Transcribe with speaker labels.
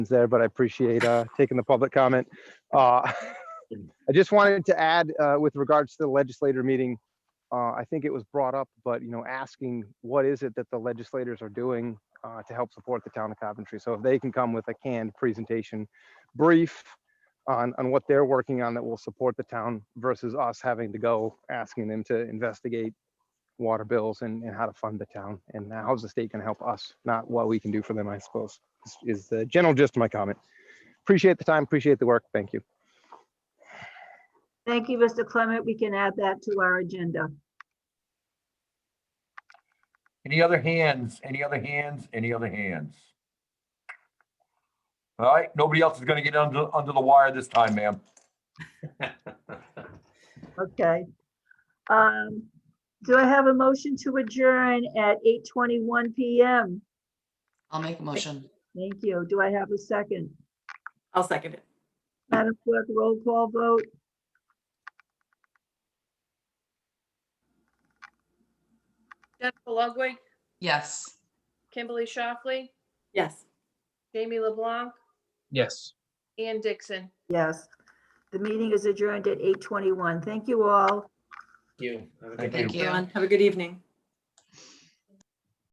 Speaker 1: there, but I appreciate uh, taking the public comment. Uh, I just wanted to add uh, with regards to the legislator meeting, uh, I think it was brought up, but you know, asking what is it that the legislators are doing uh, to help support the town of Coventry? So if they can come with a canned presentation, brief on, on what they're working on that will support the town versus us having to go asking them to investigate water bills and, and how to fund the town and how's the state gonna help us, not what we can do for them, I suppose, is- is the general gist of my comment. Appreciate the time, appreciate the work. Thank you.
Speaker 2: Thank you, Mr. Clement. We can add that to our agenda.
Speaker 3: Any other hands? Any other hands? Any other hands? All right, nobody else is gonna get under, under the wire this time, ma'am.
Speaker 2: Okay. Um, do I have a motion to adjourn at eight twenty-one PM?
Speaker 4: I'll make a motion.
Speaker 2: Thank you. Do I have a second?
Speaker 5: I'll second it.
Speaker 2: Madam Clerk, roll call vote.
Speaker 6: Jennifer Ludwig,
Speaker 4: Yes.
Speaker 6: Kimberly Shockley,
Speaker 5: Yes.
Speaker 6: Jamie LeBlanc,
Speaker 7: Yes.
Speaker 6: Ann Dixon.
Speaker 2: Yes. The meeting is adjourned at eight twenty-one. Thank you all.
Speaker 7: You. Have a good
Speaker 3: Thank you.
Speaker 7: day.
Speaker 4: Thank you.
Speaker 5: Everyone, have a good evening.